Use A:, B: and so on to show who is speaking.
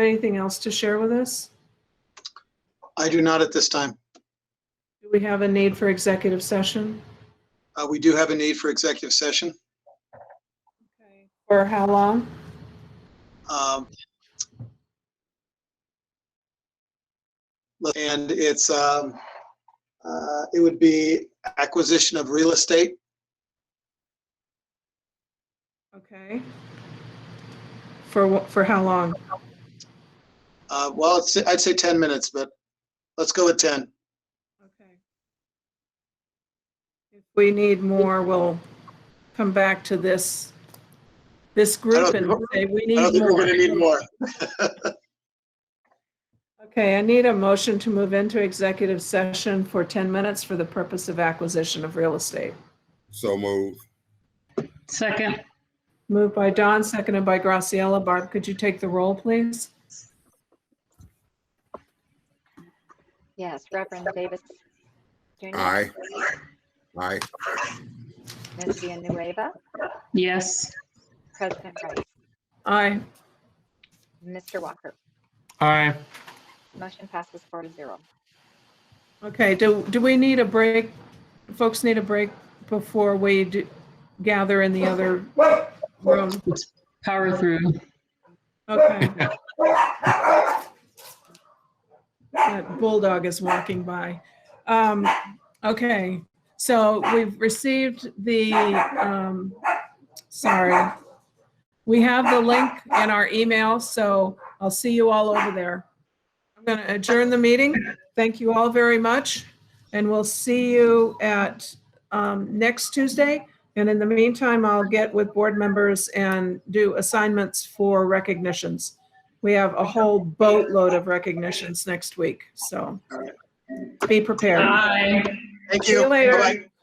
A: Anything else to share with us?
B: I do not at this time.
A: Do we have a need for executive session?
B: Uh, We do have a need for executive session.
A: For how long?
B: Um, And it's, um, uh, it would be acquisition of real estate.
A: Okay. For, wha- for how long?
B: Uh, Well, it's- I'd say 10 minutes, but let's go with 10.
A: Okay. If we need more, we'll come back to this, this group and say we
B: I
A: need
B: don't think we're
A: more.
B: going to need more.
A: Okay, I need a motion to move into executive session for 10 minutes for the purpose of acquisition of real estate.
C: So move.
D: Second,
A: Moved by Don, seconded by Graciela. Barb, could you take the roll, please?
E: Yes, Reverend Davis. Jr.
C: Aye. Aye.
E: Ms. Villanueva,
D: yes.
E: President Wright,
A: Aye.
E: Mr. Walker.
F: Aye.
E: Motion passes four to zero.
A: Okay, do, do we need a break? Folks need a break before we do- gather in the other room?
D: Power through.
A: Okay. That bulldog is walking by. Um, okay, so we've received the, um, sorry. We have the link in our email, so I'll see you all over there. I'm going to adjourn the meeting. Thank you all very much. And we'll see you at, um, next Tuesday. And in the meantime, I'll get with board members and do assignments for recognitions. We have a whole boatload of recognitions next week, so be prepared.
D: Aye.
B: Thank
A: See you
B: you.
A: later.
B: Bye-bye.